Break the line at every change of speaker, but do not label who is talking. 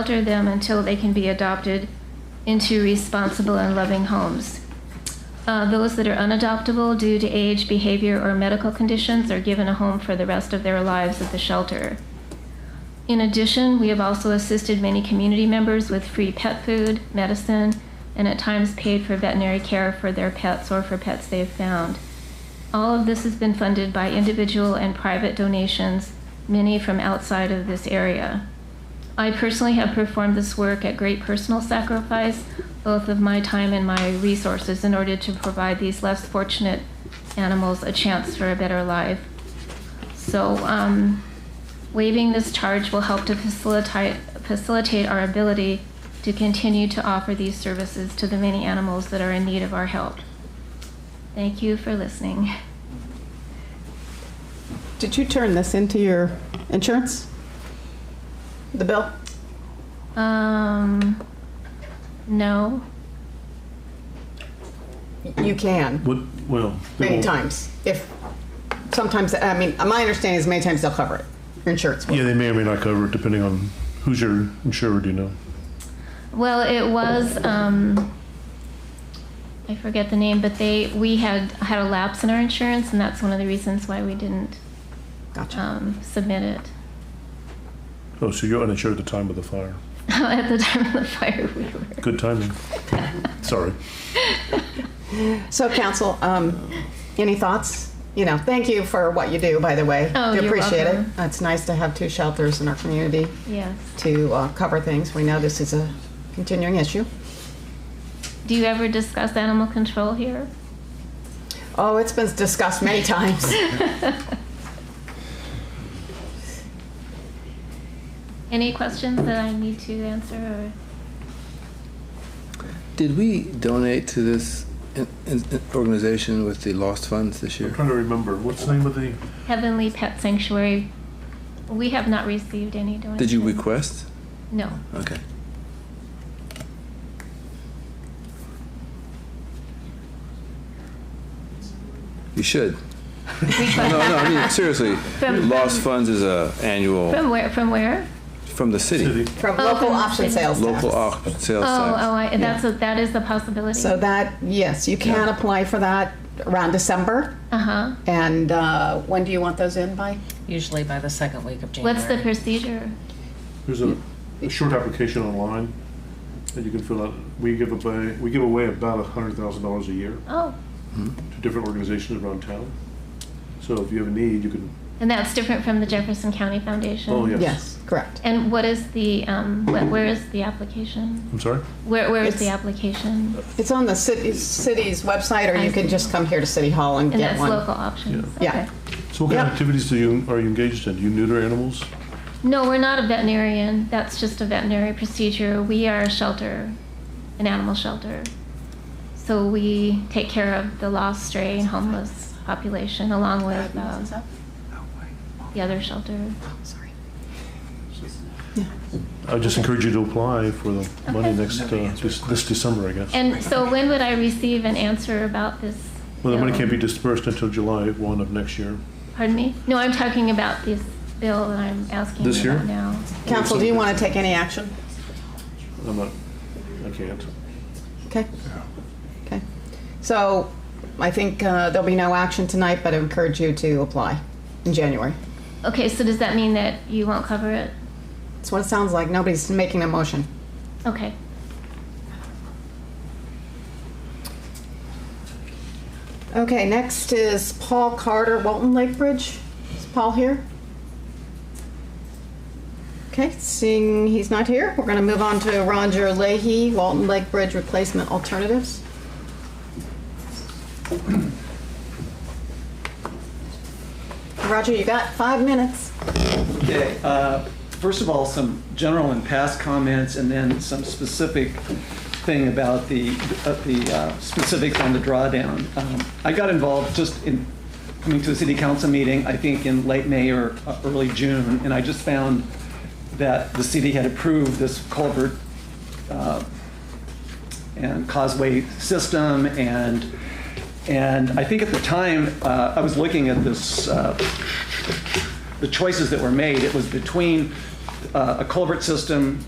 shelter them until they can be adopted into responsible and loving homes. Uh, Those that are unadoptable due to age, behavior, or medical conditions are given a home for the rest of their lives at the shelter. In addition, we have also assisted many community members with free pet food, medicine, and at times paid for veterinary care for their pets or for pets they have found. All of this has been funded by individual and private donations, many from outside of this area. I personally have performed this work at great personal sacrifice, both of my time and my resources, in order to provide these less fortunate animals a chance for a better life. So, um, waiving this charge will help to facilitate, facilitate our ability to continue to offer these services to the many animals that are in need of our help. Thank you for listening.
Did you turn this into your insurance? The bill?
Um, no.
You can,
What, well. they
many
won't-
times. If, sometimes, I mean, my understanding is many times they'll cover it. Your Insurance will.
Yeah, they may or may not cover it, depending on who's your insurer, do you know?
Well, it was, um, I forget the name, but they, we had, had a lapse in our insurance, and that's one of the reasons why we didn't,
Gotcha.
um, submit it.
Oh, so you're uninsured at the time of the fire.
At the time of the fire, we were.
Good timing. Sorry.
Oh.
So council, um, any thoughts? You know, thank you for what you do, by the way.
Oh,
We
you're
Appreciate it.
welcome.
It's nice to have two shelters in our community
Yes.
to uh, cover things. We know this is a continuing issue.
Do you ever discuss animal control here?
Oh, it's been discussed many times.
Any questions that I need to answer or?
Did we donate to this in- in- organization with the lost funds this
I'm
year?
trying to remember, what's the name of the,
Heavenly Pet Sanctuary, we have not received any donations.
Did you request?
No.
Okay. You should. No, no, I mean, seriously,
From-
lost funds is a annual,
From where, from where?
from the city,
city?
From
Oh,
local
from the
option
city.
sales tax.
local au- sales
Oh, oh,
tax.
I, that's, a- that is the possibility.
So that, yes, you can
Yeah.
apply for that around December.
Uh-huh.
And uh, when do you want those in by?
Usually by the second week of January.
What's the procedure?
There's a, a short application online that you can fill out. We give away, we give away about a hundred thousand dollars a year
Oh,
to different organizations around town. So if you have a need, you can,
and that's different from the Jefferson County Foundation?
oh, yes.
Yes, correct.
And what is the, um, wh- where is the application?
I'm sorry?
Where, where is the
It's-
application?
It's on the city, city's website, or
I
you can
see.
just come here to City Hall and
And
get
that's
one.
local options?
Yeah.
Okay.
So what kind
Yeah.
of activities do you, are you engaged in? Do you neuter animals?
No, we're not a veterinarian. That's just a veterinary procedure. We are a shelter, an animal shelter. So we take care of the lost stray and homeless population along with um,
Oh,
the other shelter.
I just encourage you to apply for the money
Okay.
next, uh, this this December, I guess.
And so when would I receive an answer about this?
Well, the money
bill?
can't be dispersed until July 1 of next year.
Pardon me? No, I'm talking about this bill that I'm asking
This
you about
year?
now.
Council, do you want to take any action?
I'm not, I can't.
Okay? Okay. So I think uh, there'll be no action tonight, but I encourage you to apply in January.
Okay, so does that mean that you won't cover it?
That's what it sounds like. Nobody's making a motion.
Okay.
Okay, next is Paul Carter, Walton Lake Bridge. Is Paul here? Okay, seeing he's not here, we're going to move on to Roger Leahy, Walton Lake Bridge Replacement Alternatives. Roger, you got five minutes.
Okay, uh, first of all, some general and past comments, and then some specific thing about the, uh, the uh, specifics on the drawdown. Um, I got involved just in coming to a city council meeting, I think in late May or uh, early June, and I just found that the city had approved this culvert uh, and causeway system and and I think at the time uh, I was looking at this uh, the choices that were made it was between uh, a culvert system